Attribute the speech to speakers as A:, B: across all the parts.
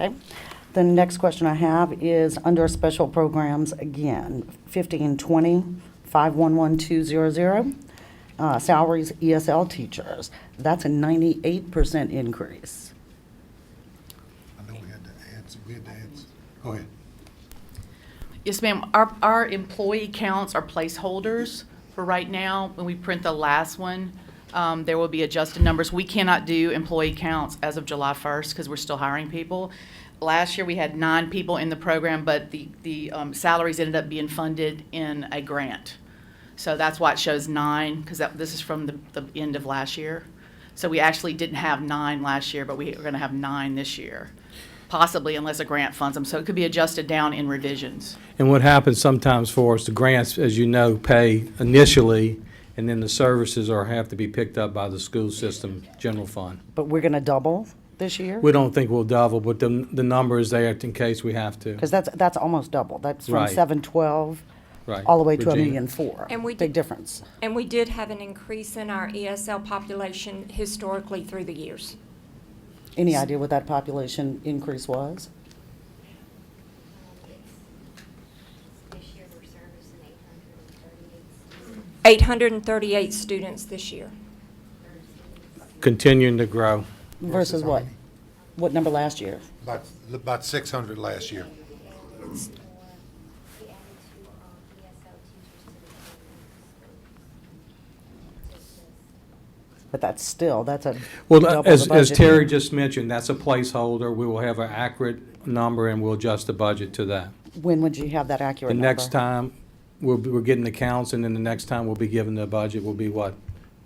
A: Okay. The next question I have is under special programs again, 1520, 511200, uh, salaries ESL teachers. That's a 98% increase.
B: I know we had to add, some- we had to add, some- go ahead.
C: Yes, ma'am. Our, our employee counts are placeholders for right now. When we print the last one, um, there will be adjusted numbers. We cannot do employee counts as of July first because we're still hiring people. Last year, we had nine people in the program, but the, the, um, salaries ended up being funded in a grant. So that's why it shows nine, because that, this is from the, the end of last year. So we actually didn't have nine last year, but we are gonna have nine this year, possibly unless a grant funds them. So it could be adjusted down in revisions.
D: And what happens sometimes for us, the grants, as you know, pay initially, and then the services are, have to be picked up by the school system general fund.
A: But we're going to double this year?
D: We don't think we'll double, but the, the number is there in case we have to.
A: Because that's, that's almost double. That's from
D: Right.
A: 712
D: Right.
A: all the way to a
D: Regina.
A: million four.
E: And we
A: Big
E: did-
A: difference.
E: And we did have an increase in our ESL population historically through the years.
A: Any idea what that population increase was?
F: This year, we're servicing eight hundred and thirty-eight
E: 838 students
F: students,
E: this year.
F: thirty students.
D: Continuing to grow.
A: Versus what? What number last year?
B: About, about six hundred last year.
F: We added more, we added two, um, ESL teachers to the program. Just this.
A: But that's still, that's a double
D: Well,
A: the
D: as, as
A: budget.
D: Terry just mentioned, that's a placeholder. We will have an accurate number and we'll adjust the budget to that.
A: When would you have that
D: The
A: accurate number?
D: next time, we'll, be- we're getting the counts, and then the next time we'll be given the budget will be what?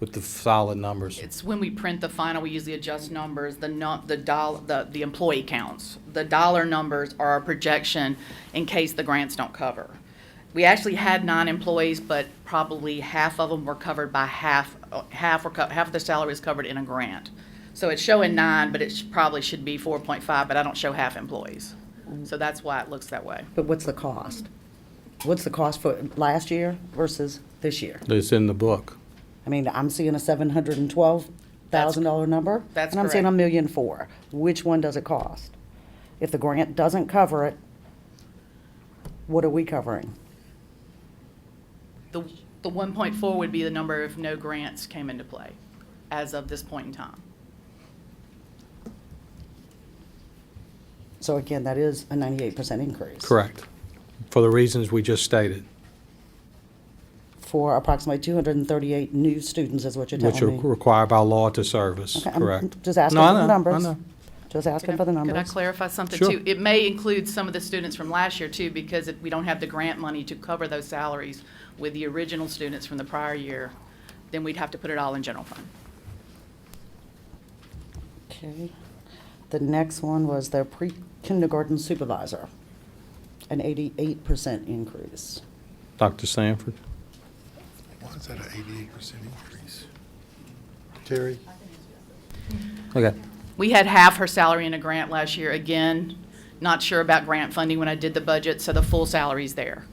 D: With the solid numbers.
C: It's when we print the final, we usually adjust numbers, the nu, the dollar, the, the employee counts. The dollar numbers are our projection in case the grants don't cover. We actually had nine employees, but probably half of them were covered by half, half were, co- half of the salary is covered in a grant. So it's showing nine, but it sh- probably should be four point five, but I don't show half employees. So that's why it looks that way.
A: But what's the cost? What's the cost for last year versus this year?
D: It's in the book.
A: I mean, I'm seeing a seven hundred and twelve thousand dollar number.
C: That's
A: And I'm seeing a
C: correct.
A: million four. Which one does it cost? If the grant doesn't cover it, what are we covering?
C: The, the one point four would be the number if no grants came into play as of this point in time.
A: So again, that is a ninety-eight percent increase.
D: Correct. For the reasons we just stated,
A: For approximately two hundred and thirty-eight new students is what you're
D: which are
A: telling me.
D: required by law to service,
A: Okay, I'm
D: correct?
A: Just asking
D: No, I
A: for the
D: know, I
A: numbers.
D: know.
A: Just asking
C: Could
A: for the
C: I- Could I
A: numbers.
C: clarify something
D: Sure.
C: too? It may include some of the students from last year too, because if we don't have the grant money to cover those salaries with the original students from the prior year, then we'd have to put it all in general fund.
A: Okay. The next one was their pre-kindergarten supervisor, an eighty-eight percent increase.
D: Dr. Sanford?
B: Why is that an eighty-eight percent increase? Terry?
D: Okay.
C: We had half her salary in a grant last year, again, not sure about grant funding when I did the budget, so the full salary's there.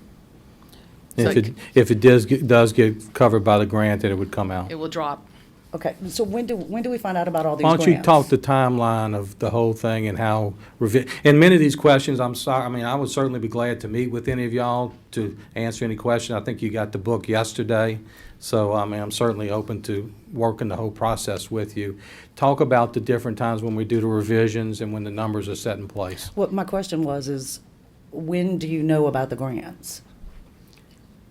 C: So
D: If it, if it does, get- does get covered by the grant, then it would come out.
C: It will drop.
A: Okay, so when do, when do we find out about all these
D: Why
A: grants?
D: don't you talk the timeline of the whole thing and how, revi- and many of these questions, I'm sorry, I mean, I would certainly be glad to meet with any of y'all to answer any question. I think you got the book yesterday, so, I mean, I'm certainly open to working the whole process with you. Talk about the different times when we do the revisions and when the numbers are set in place.
A: What my question was is, when do you know about the grants?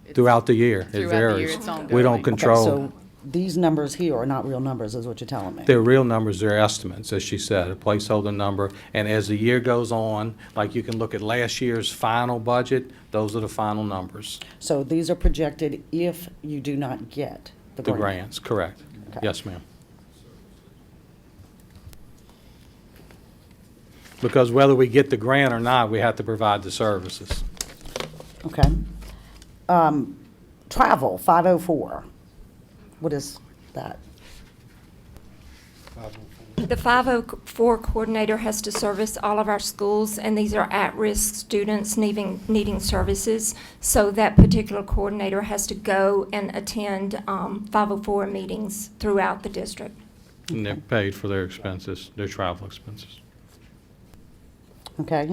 C: It's-
D: Throughout the year,
C: Throughout
D: it
C: the year,
D: varies.
C: it's ongoing.
D: We don't
A: Okay,
D: control.
A: So these numbers here are not real numbers, is what you're telling me?
D: They're real numbers, they're estimates, as she said, a placeholder number. And as the year goes on, like you can look at last year's final budget, those are the final numbers,
A: So these are projected if you do not get the
D: the
A: grant?
D: grants, correct.
A: Okay.
D: Yes, ma'am. Because whether we get the grant or not, we have to provide the services.
A: Okay. Um, Travel, 504. What is that?
B: oh
E: The 504 coordinator has to service all of our schools, and these are at-risk students needing, needing services. So that particular coordinator has to go and attend um, 504 meetings throughout the district.
D: And they're paid for their expenses, their travel expenses.
A: okay?